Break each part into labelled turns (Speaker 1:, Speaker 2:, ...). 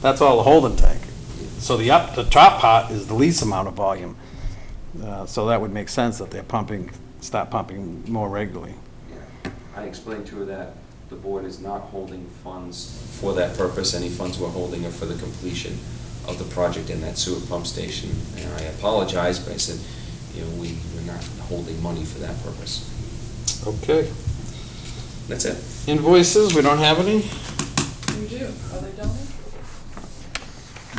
Speaker 1: That's all the holding tank. So the up, the top part is the least amount of volume. Uh, So that would make sense that they're pumping, start pumping more regularly.
Speaker 2: Yeah. I explained to her that the board is not holding funds for that purpose. Any funds we're holding are for the completion of the project in that sewer pump station. And I apologized, but I said, you know, we, we're not holding money for that purpose.
Speaker 1: Okay.
Speaker 2: That's it.
Speaker 1: Invoices, we don't have any?
Speaker 3: You do, are they done?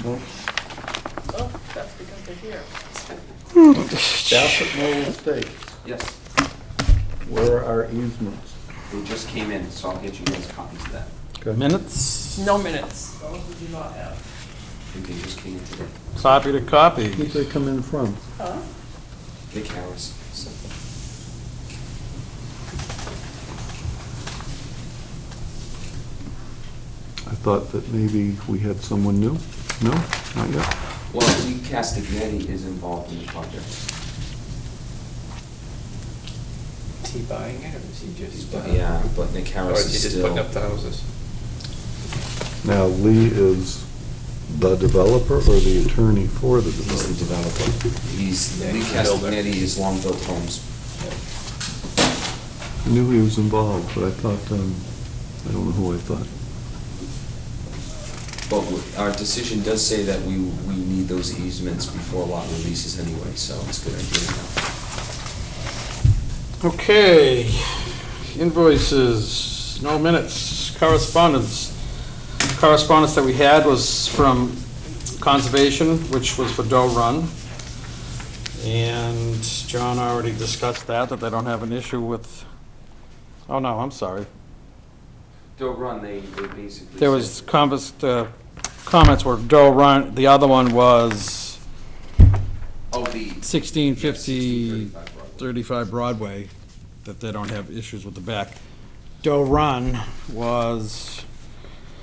Speaker 1: No.
Speaker 3: Oh, that's because they're here.
Speaker 4: South of Noel Estate,
Speaker 2: Yes,
Speaker 4: where are easements?
Speaker 2: they just came in, so I'll get you guys copies of that.
Speaker 1: Minutes?
Speaker 3: No minutes. Those we do not have.
Speaker 2: I think they just came in today.
Speaker 1: Copy to
Speaker 4: Who'd
Speaker 1: copy.
Speaker 4: they come in from?
Speaker 3: Huh?
Speaker 2: Vic Harris. so-
Speaker 5: I thought that maybe we had someone new. No, not yet.
Speaker 2: Well, Lee Castagnetti is involved in the project.
Speaker 6: Is he buying it, or is he
Speaker 2: He's
Speaker 6: just?
Speaker 2: bu-
Speaker 6: uh,
Speaker 2: Yeah, but Nick
Speaker 6: Or
Speaker 2: Harris
Speaker 6: is he
Speaker 2: is
Speaker 6: just
Speaker 2: still.
Speaker 6: putting up the houses?
Speaker 5: Now, Lee is the developer or the attorney for the
Speaker 2: He's the
Speaker 5: developer?
Speaker 2: developer. He's,
Speaker 6: Yeah,
Speaker 2: Lee
Speaker 6: he's a builder.
Speaker 2: Castagnetti is Long Built Homes.
Speaker 5: I knew he was involved, but I thought, um, I don't know who I thought.
Speaker 2: But w- our decision does say that we, we need those easements before lot releases anyway, so it's a good idea.
Speaker 1: Okay. Invoices, no minutes. Correspondence. Correspondence that we had was from Conservation, which was for Doe Run. And John already discussed that, that they don't have an issue with, oh no, I'm sorry.
Speaker 2: Don't run, they, they basically.
Speaker 1: There was convers, uh, comments were Doe Run, the other one was
Speaker 2: Oh, the.
Speaker 1: sixteen fifty.
Speaker 2: 1635 Broadway.
Speaker 1: 35 Broadway, that they don't have issues with the back. Doe Run was,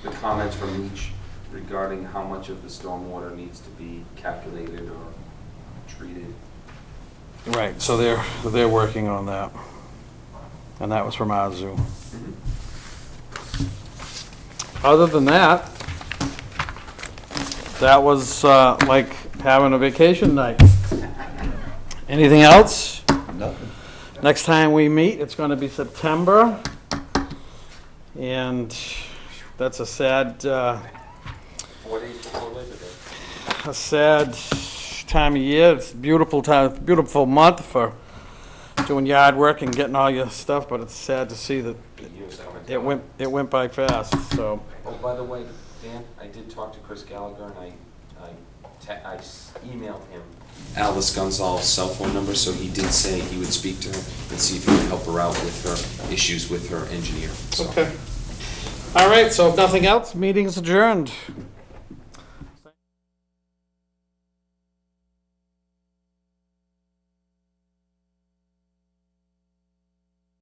Speaker 2: The comments from each regarding how much of the stormwater needs to be calculated or treated.
Speaker 1: right, so they're, they're working on that. And that was from Azu. Other than that, that was uh, like having a vacation night. Anything else?
Speaker 4: Nothing.
Speaker 1: Next time we meet, it's going to be September. And that's a sad, uh,
Speaker 2: Four days before Labor Day.
Speaker 1: a sad time of year. It's a beautiful time, beautiful month for doing yard work and getting all your stuff, but it's sad to see that
Speaker 2: The year's coming
Speaker 1: it
Speaker 2: down.
Speaker 1: went, it went by fast, so.
Speaker 2: Oh, by the way, Dan, I did talk to Chris Gallagher, and I, I, te- I s- emailed him Alice Gonzalez's cell phone number, so he did say he would speak to her and see if he could help her out with her issues with her engineer, so.
Speaker 1: All right, so if nothing else, meeting's adjourned.